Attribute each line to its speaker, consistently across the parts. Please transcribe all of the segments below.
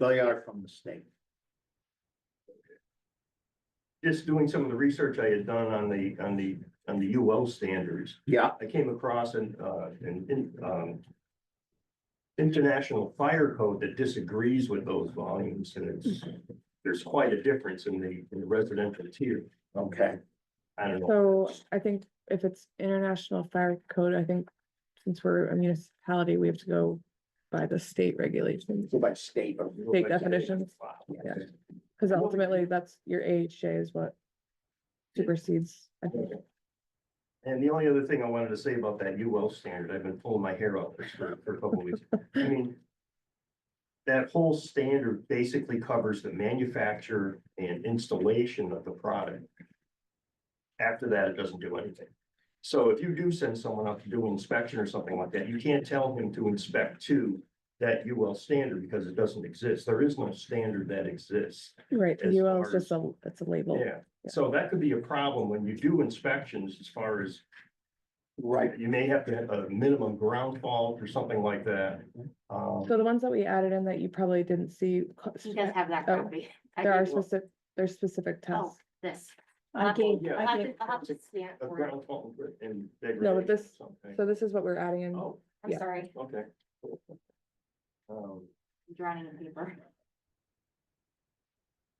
Speaker 1: They are from the state.
Speaker 2: Just doing some of the research I had done on the, on the, on the UL standards,
Speaker 1: Yeah,
Speaker 2: I came across an, uh, an, in- um. International fire code that disagrees with those volumes and it's, there's quite a difference in the, in the residential tier.
Speaker 1: okay.
Speaker 2: I don't know.
Speaker 3: So I think if it's international fire code, I think since we're a municipality, we have to go by the state regulations.
Speaker 1: Go by state or.
Speaker 3: State definitions, yeah. because
Speaker 2: Well,
Speaker 3: ultimately that's your AHJ is what supersedes, I think.
Speaker 2: And the only other thing I wanted to say about that UL standard, I've been pulling my hair out this for, for a couple of weeks. I mean. That whole standard basically covers the manufacture and installation of the product. After that, it doesn't do anything. So if you do send someone out to do an inspection or something like that, you can't tell him to inspect to that UL standard because it doesn't exist. There is no standard that exists.
Speaker 3: Right,
Speaker 2: As
Speaker 3: UL is
Speaker 2: far as-
Speaker 3: just a, it's a label.
Speaker 2: Yeah, so that could be a problem when you do inspections as far as
Speaker 1: Right,
Speaker 2: you may have to have a minimum ground fault or something like that. Um,
Speaker 3: So the ones that we added in that you probably didn't see, co-
Speaker 4: He does have that
Speaker 3: Oh,
Speaker 4: copy. I
Speaker 3: there
Speaker 4: do.
Speaker 3: are specific, there's specific
Speaker 4: Oh,
Speaker 3: tests.
Speaker 4: this.
Speaker 3: I gave,
Speaker 2: yeah.
Speaker 3: I
Speaker 4: I'll have
Speaker 3: gave,
Speaker 4: to- I'll have to scan it
Speaker 2: A
Speaker 4: for it.
Speaker 2: ground fault and.
Speaker 3: No, but this-
Speaker 2: degradation or something.
Speaker 3: so this is what we're adding in.
Speaker 2: Oh,
Speaker 4: I'm
Speaker 3: yeah.
Speaker 4: sorry,
Speaker 2: okay. Um,
Speaker 4: I'm drowning in paper.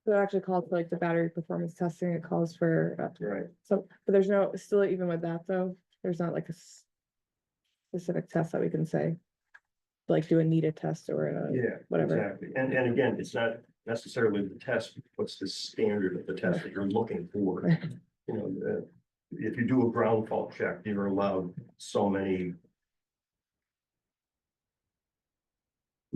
Speaker 3: So it actually calls for like the battery performance testing, it calls for, uh,
Speaker 2: right,
Speaker 3: so, but there's no, still even with that though, there's not like a s- specific test that we can say, like do a NETA test or a,
Speaker 2: yeah,
Speaker 3: whatever.
Speaker 2: exactly. And, and again, it's not necessarily the test, what's the standard of the test that you're looking for? You know, uh, if you do a ground fault check, you're allowed so many,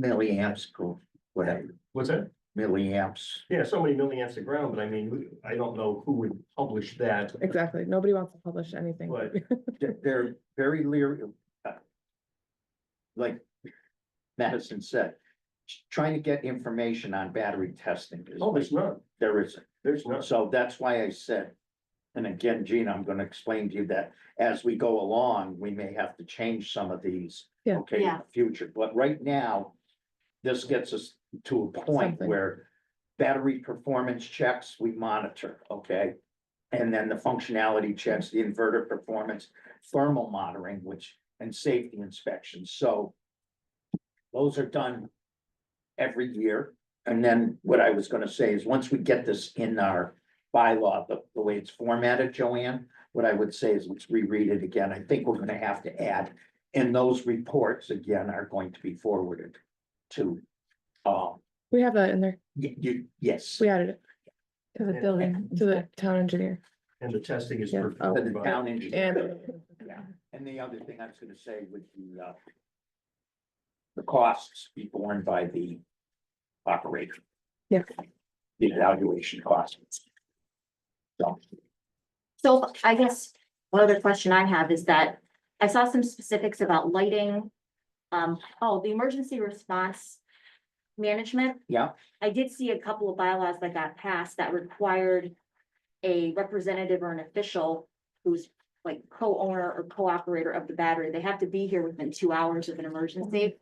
Speaker 1: milliamps, cool, whatever,
Speaker 2: what's that?
Speaker 1: milliamps.
Speaker 2: Yeah, so many milliamps of ground, but I mean, who- I don't know who would publish that.
Speaker 3: Exactly, nobody wants to publish anything.
Speaker 2: But-
Speaker 1: They're, they're very leery. of, uh, Like Madison said, trying to get information on battery testing is,
Speaker 2: Oh, there's none,
Speaker 1: there isn't.
Speaker 2: there's none.
Speaker 1: So that's why I said, and again, Gina, I'm gonna explain to you that as we go along, we may have to change some of these.
Speaker 3: Yeah.
Speaker 1: Okay, in
Speaker 4: Yeah.
Speaker 1: the future, but right now, this gets us to a point
Speaker 3: Something.
Speaker 1: where battery performance checks, we monitor, okay? And then the functionality checks, the inverter performance, thermal monitoring, which, and safety inspections, so those are done every year. And then what I was gonna say is, once we get this in our bylaw, the, the way it's formatted, Joanne, what I would say is, let's reread it again. I think we're gonna have to add, and those reports, again, are going to be forwarded to, um,
Speaker 3: We have that in there,
Speaker 1: y- you, yes,
Speaker 3: we added it. To the
Speaker 2: Yeah.
Speaker 3: building, to the town engineer
Speaker 2: And the testing is.
Speaker 3: Yeah.
Speaker 1: to
Speaker 2: performed
Speaker 1: the
Speaker 2: by-
Speaker 1: town engineer.
Speaker 3: and,
Speaker 1: And the other thing I was gonna say would be, uh, the costs be borne by the operator.
Speaker 3: Yeah.
Speaker 1: The evaluation costs. So,
Speaker 4: So I guess one other question I have is that I saw some specifics about lighting. Um, oh, the emergency response management.
Speaker 1: Yeah.
Speaker 4: I did see a couple of bylaws that got passed that required a representative or an official who's like co-owner or co-operator of the battery. They have to be here within two hours of an emergency.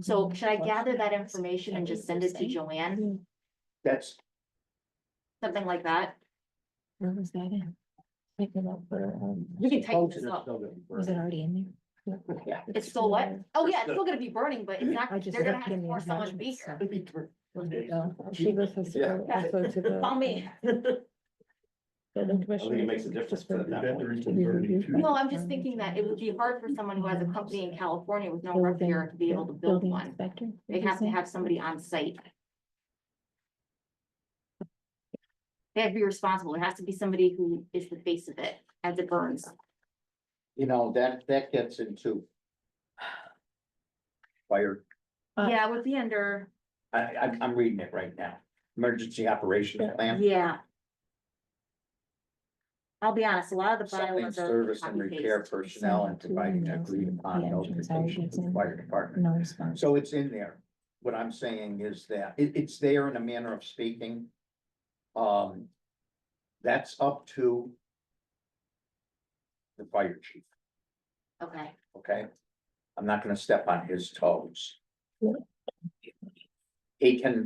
Speaker 4: So should I gather Mm-hmm. that information and just send it to Joanne,
Speaker 1: that's,
Speaker 4: something like that?
Speaker 5: Where was that in? Like, you know, for, um,
Speaker 4: You can type
Speaker 1: supposed
Speaker 4: this
Speaker 1: to
Speaker 4: up.
Speaker 1: still gonna be
Speaker 5: Was it
Speaker 1: burned.
Speaker 5: already in there?
Speaker 1: Yeah.
Speaker 4: It's still what? Oh, yeah, it's still gonna be burning, but it's
Speaker 5: I
Speaker 4: not,
Speaker 5: just
Speaker 4: they're gonna
Speaker 5: looked
Speaker 4: have
Speaker 5: in
Speaker 4: to
Speaker 5: the
Speaker 4: force someone to be
Speaker 5: environment,
Speaker 4: here.
Speaker 5: so- She was supposed to
Speaker 1: Yeah.
Speaker 5: go also to the.
Speaker 4: Call me.
Speaker 5: Building commissioner.
Speaker 1: makes a difference
Speaker 5: just for-
Speaker 1: to the-
Speaker 2: Veterans and burning too.
Speaker 4: No, I'm just thinking that it would be hard for someone who has a company in California with no rep
Speaker 5: building-
Speaker 4: here to be able to build
Speaker 5: building
Speaker 4: one.
Speaker 5: inspector,
Speaker 4: They
Speaker 5: did you
Speaker 4: have to
Speaker 5: say?
Speaker 4: have somebody on site. They have to be responsible. It has to be somebody who is the face of it as it burns.
Speaker 1: You know, that, that gets into fire,
Speaker 5: Uh,
Speaker 4: Yeah, it would be under,
Speaker 1: I, I'm, I'm reading it right now, emergency operations
Speaker 5: Yeah.
Speaker 1: plan.
Speaker 4: yeah. I'll be honest, a lot of the
Speaker 1: Something
Speaker 4: bylaws are
Speaker 1: service and
Speaker 4: copy
Speaker 1: repair
Speaker 4: paste.
Speaker 1: personnel and providing agreed upon
Speaker 5: Yeah,
Speaker 1: notification to the fire department.
Speaker 5: No response.
Speaker 1: So it's in there. What I'm saying is that it, it's there in a manner of speaking. Um, that's up to the fire chief,
Speaker 4: Okay,
Speaker 1: okay? I'm not gonna step on his toes. they can